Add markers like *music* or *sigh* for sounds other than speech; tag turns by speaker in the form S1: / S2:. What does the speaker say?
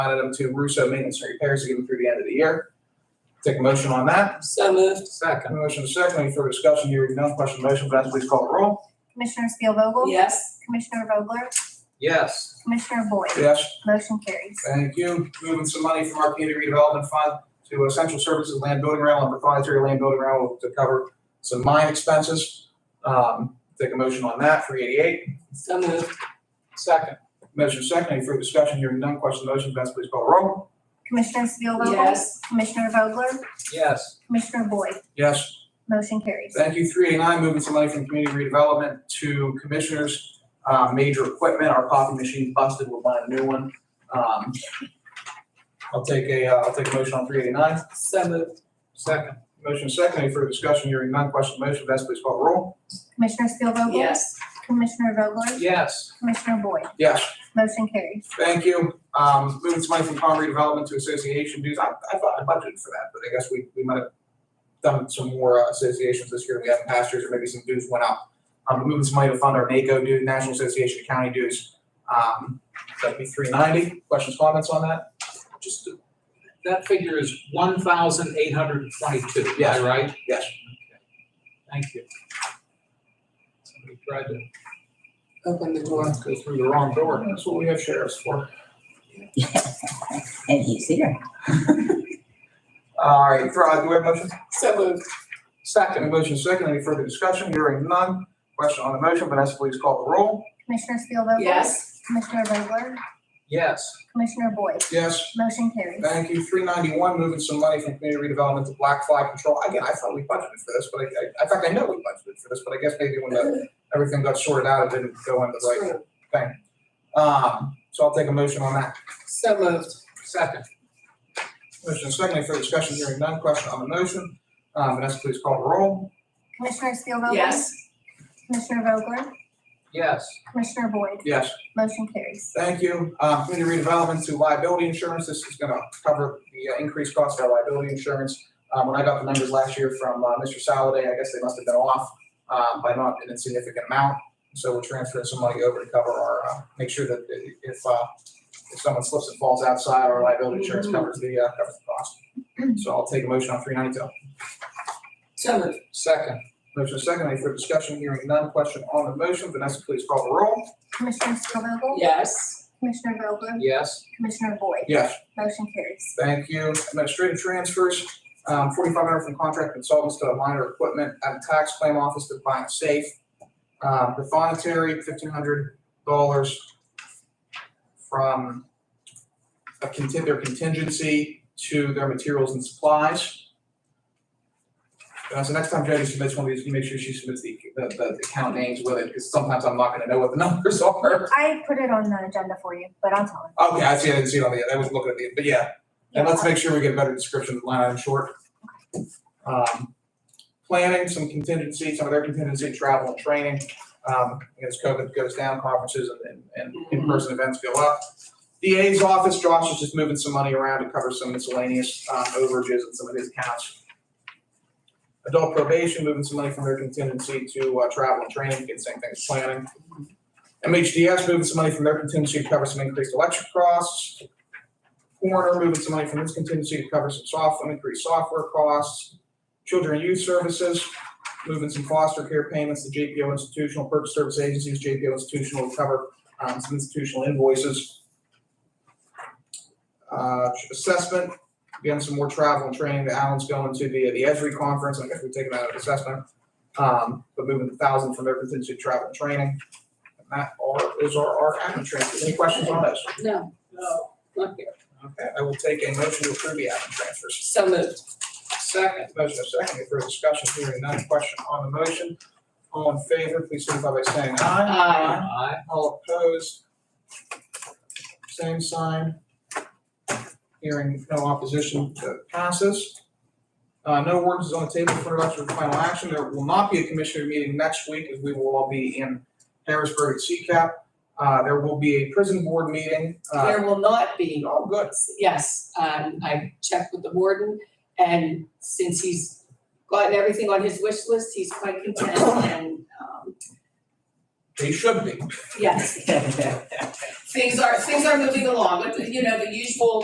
S1: line item to Russo Maintenance and Repairs even through the end of the year. Take a motion on that.
S2: So moved.
S1: Second. Motion is second, any further discussion, hearing none, question on the motion, Vanessa, please call the roll.
S3: Commissioner Spielvogel,
S2: Yes.
S3: Commissioner Vogler?
S1: Yes.
S3: Commissioner Boyd?
S1: Yes.
S3: Motion carries.
S1: Thank you. Moving some money from our community redevelopment fund to essential services land building rental and proprietary land building rental to cover some mine expenses. Um, take a motion on that, three eighty-eight.
S2: So moved.
S1: Second. Motion second, any further discussion, hearing none, question on the motion, Vanessa, please call the roll.
S3: Commissioner Spielvogel?
S2: Yes.
S3: Commissioner Vogler?
S1: Yes.
S3: Commissioner Boyd?
S1: Yes.
S3: Motion carries.
S1: Thank you, three eighty-nine, moving some money from community redevelopment to commissioners, uh, major equipment, our coffee machine busted, we'll buy a new one. Um, I'll take a, uh, I'll take a motion on three eighty-nine.
S2: So moved.
S1: Second. Motion second, any further discussion, hearing none, question on the motion, Vanessa, please call the roll.
S3: Commissioner Spielvogel?
S2: Yes.
S3: Commissioner Vogler?
S1: Yes.
S3: Commissioner Boyd?
S1: Yes,
S3: Motion carries.
S1: thank you, um, moving some money from farm redevelopment to association dues, I, I thought I budgeted for that, but I guess we, we might have done some more uh, associations this year, we haven't past years, or maybe some dues went up. Um, moving some money to fund our NACO dues, National Association of County dues. Um, that'd be three ninety. Questions, comments on that?
S4: Just, to- that figure is one thousand eight hundred and twenty-two, am
S1: Yes.
S4: I right?
S1: Yes.
S4: Thank you. Somebody tried to
S2: Open the door.
S4: go through the wrong door.
S1: That's what we have sheriffs for.
S5: And he's here.
S1: All right, for, uh, do we have a motion?
S2: So moved.
S1: Second. Motion second. Any further discussion? Hearing none. Question on the motion. Vanessa, please call the roll.
S3: Commissioner Spielvogel?
S2: Yes.
S3: Commissioner Vogler?
S4: Yes,
S3: Commissioner Boyd?
S1: Yes.
S3: Motion carries.
S1: Thank you. Three ninety-one, moving some money from community redevelopment to black fly control. Again, I thought we budgeted for this, but I, I, in fact, I know we budgeted for this, but I guess maybe when the- everything got sorted out, it didn't go into the right
S2: True.
S1: thing. Um, so I'll take a motion on that.
S2: So moved.
S4: second,
S1: Motion is second, any further discussion, hearing none, question on the motion. Uh, Vanessa, please call the roll.
S3: Commissioner Spielvogel?
S2: Yes.
S3: Commissioner Vogler?
S4: yes,
S3: Commissioner Boyd?
S1: Yes.
S3: Motion carries.
S1: Thank you. Uh, community redevelopment to liability insurance, this is gonna cover the uh, increased cost of our liability insurance. Um, when I got the numbers last year from, uh, Mr. Saladay, I guess they must have been off, um, by not an insignificant amount. So we're transferring some money over to cover our, uh, make sure that i- if, uh, if someone slips and falls outside, our liability insurance covers the, uh, covers the cost. So I'll take a motion on three ninety-two.
S2: So moved.
S4: second,
S1: Motion is second, any further discussion, hearing none, question on the motion, Vanessa, please call the roll.
S3: Commissioner Spielvogel?
S2: Yes.
S3: Commissioner Vogler?
S4: yes,
S3: Commissioner Boyd?
S1: Yes.
S3: Motion carries.
S1: Thank you, administrative transfers, um, forty-five hundred from contract consultants to minor equipment at the tax claim office to buy a safe. Um, the voluntary, fifteen hundred dollars from a contin, their contingency to their materials and supplies. Uh, so next time Jody submits one of these, you make sure she submits the, the, the account names with it, because sometimes I'm not gonna know what the *laughs* numbers are.
S3: I put it on the agenda for you, but I'll tell him.
S1: Okay, I see, I didn't see it on the, I was looking at the, but yeah, and let's make sure we get a better description of the line item short. Um, planning, some contingency, some of their contingency, travel and training, um, as COVID goes down, conferences and, and and in-person events go up. DA's office, Josh is just moving some money around to cover some miscellaneous, um, overages in some of his accounts. Adult probation, moving some money from their contingency to, uh, travel and training, again, same thing as planning. MHDS moving some money from their contingency to cover some increased electric costs. Coroner moving some money from its contingency to cover some software, increased software costs. Children and youth services, moving some foster care payments to JPO institutional purchase service agencies, JPO institutional to cover um, some institutional invoices. Uh, assessment, again, some more travel and training that Alan's going to the, the Esri conference, I guess we're taking that out of assessment. Um, but moving the thousand from their contingency to travel and training. And that are, is our, our admin transfers. Any questions on this?
S2: No. No. Not here.
S1: Okay, I will take a motion to approve the admin transfers.
S2: So moved.
S1: Second. Motion is second, any further discussion, hearing none, question on the motion. All in favor, please signify by saying aye.
S2: Aye.
S4: aye,
S1: All opposed? Same sign. Hearing no opposition, uh, passes. Uh, no words is on the table for introduction and final action, there will not be a commissioner meeting next week, as we will all be in Harrisburg at CCAP. Uh, there will be a prison board meeting, uh,
S2: There will not be.
S1: all good.
S2: Yes, um, I checked with the warden and since he's gotten everything on his wish list, he's quite content and, um,
S1: They should be.
S2: yes. Things are, things are moving along, but you know, the usual